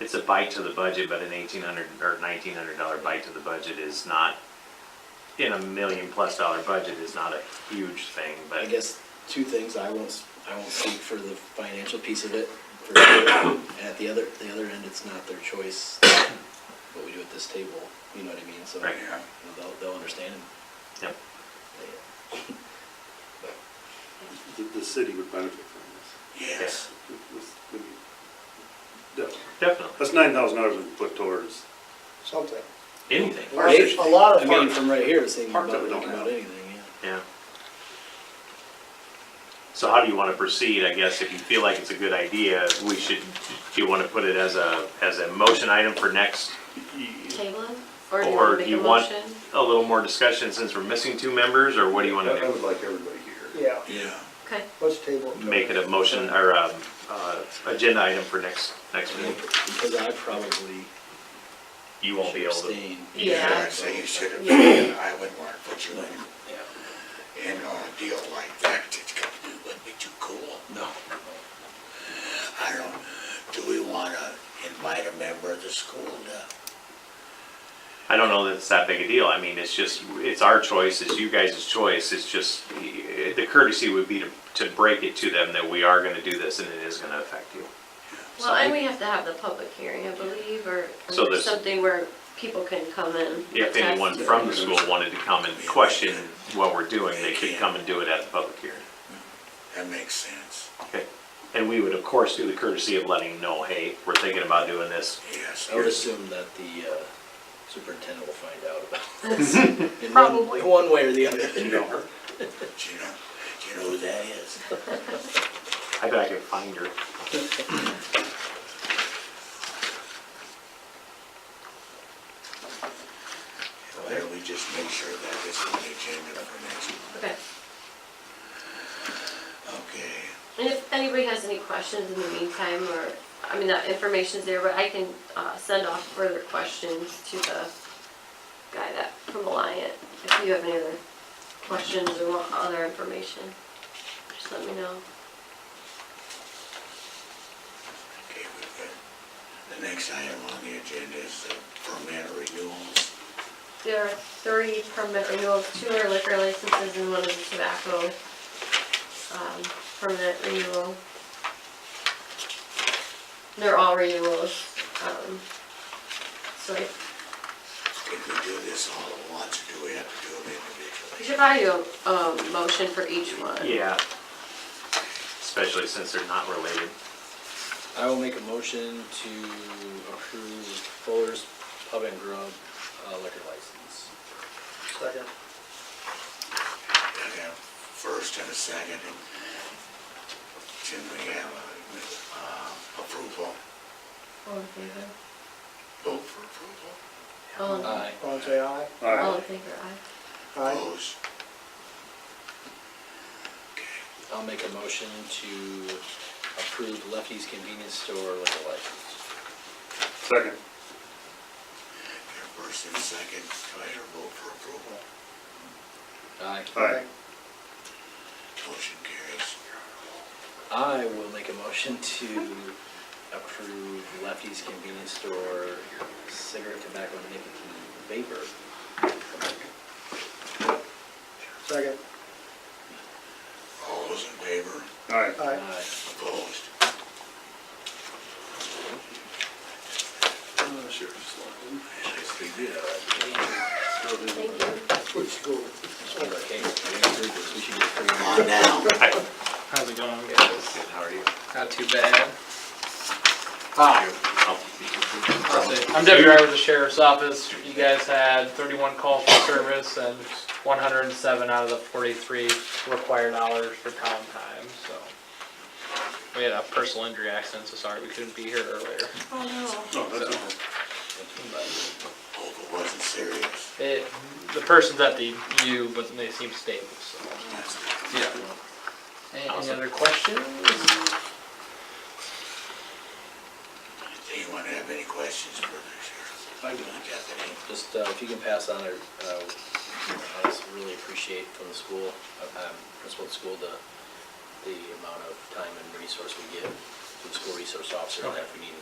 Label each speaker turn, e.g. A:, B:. A: it's a bite to the budget, but an eighteen hundred or nineteen hundred dollar bite to the budget is not, in a million plus dollar budget is not a huge thing,
B: I
A: but
B: guess two things, I won't, I won't speak for the financial piece of it. for sure. At the other, the other end, it's not their choice what we do at this table, you know what I mean? So
A: Right.
B: you know, they'll, they'll understand. and
A: Yep.
B: they- but
C: The, the city would benefit from
A: Yes.
C: this. This would be- definitely.
A: definitely,
C: That's nine thousand dollars we can put towards,
D: something.
A: anything,
D: Or A lot
B: I
D: of
B: mean,
D: parts.
B: from right here, it's thinking
C: Parts
B: about,
C: of it don't
B: thinking about
C: have.
B: anything, yeah.
A: yeah. So how do you wanna proceed, I guess, if you feel like it's a good idea, we should, do you wanna put it as a, as a motion item for next?
E: Table it?
A: Or
E: Or
A: do
E: do you
A: you
E: want
A: want
E: to make a motion?
A: A little more discussion since we're missing two members, or what do you wanna
C: I I
A: do?
C: would like everybody here.
D: Yeah,
B: Yeah.
E: Okay,
D: let's table it.
A: make it a motion or um, uh, agenda item for next, next meeting.
B: Because I probably
A: You won't be
B: should
A: able to.
B: abstain.
E: Yeah.
F: Yeah, I'd say you should have been, I wouldn't want to put you in,
B: Yeah.
F: in on a deal like that, it's got to be, wouldn't be too cool.
B: No.
F: I don't, do we want to invite a member of the school to?
A: I don't know that it's that big a deal. I mean, it's just, it's our choice, it's you guys' choice. It's just, eh, the courtesy would be to, to break it to them that we are gonna do this and it is gonna affect you.
E: well, and we have to have the public hearing, I believe, or or
A: So there's-
E: something where people can come in.
A: If anyone from the school wanted to come and question what we're doing, they could come and do it at the public hearing.
F: That makes sense,
A: Okay. And we would, of course, do the courtesy of letting know, hey, we're thinking about doing this.
F: yes.
B: I would
F: here's-
B: assume that the uh, superintendent will find out about this. in one-
E: Probably.
B: One way or the other.
C: No.
F: Do you know, do you know who that is?
A: I bet I could find her.
F: Why don't we just make sure that this is on the agenda for next month?
E: Okay,
F: Okay,
E: and if anybody has any questions in the meantime, or, I mean, that information's there, but I can uh, send off further questions to the guy that, from Alliant, if you have any other questions or want other information, just let me know.
F: okay, we've got, the next item on the agenda is the permit renewals.
E: There are three permit renewals, two are liquor licenses and one is a tobacco um, permit renewal. They're all renewals. um, So I-
F: Can we do this all at once, or do we have to do them
E: we
F: individually?
E: should probably do a um, motion for each one.
A: Yeah. Especially since they're not related.
B: I will make a motion to approve Fuller's Pub and Grub uh, liquor license.
D: Second.
F: I got a first and a second. Can we have a, uh, approval?
E: All in favor?
F: Vote for approval?
E: All in-
B: Aye.
D: All in say aye.
C: All
E: All in
C: right,
E: favor, aye.
D: Aye.
F: Opposed? Okay,
B: I'll make a motion to approve Lefty's Convenience Store liquor license.
C: second.
F: your first and second, go ahead and vote for approval.
B: Aye.
C: Aye.
F: Motion carries.
B: I will make a motion to approve Lefty's Convenience Store cigarette, tobacco, and nicotine vapor.
D: Second.
F: All those in favor?
C: All right,
D: Aye.
B: Aye.
F: Opposed?
B: Yes, we did.
E: Thank you.
D: Which school?
B: Okay, we should get three.
F: Come on now.
G: How's it going?
B: How are you?
G: Not too bad. Ah.
F: Hi.
G: I'm Deputy Driver with the Sheriff's Office. You guys had 31 calls for service and 107 out of the 43 required hours for town time, so. We had a personal injury accident, so sorry we couldn't be here earlier.
E: Oh, no.
C: no, that's all.
F: Hope it wasn't serious.
G: It, the person's at the U, but they seem stable, so.
F: That's
G: Yeah. Any other questions?
F: Anyone have any questions for the sheriff?
B: I do.
F: Deputy?
B: Just, uh, if you can pass on, our, uh, I just really appreciate from the school, uh, um, principal of the school, the, the amount of time and resource we give to the school resource officer, and if we need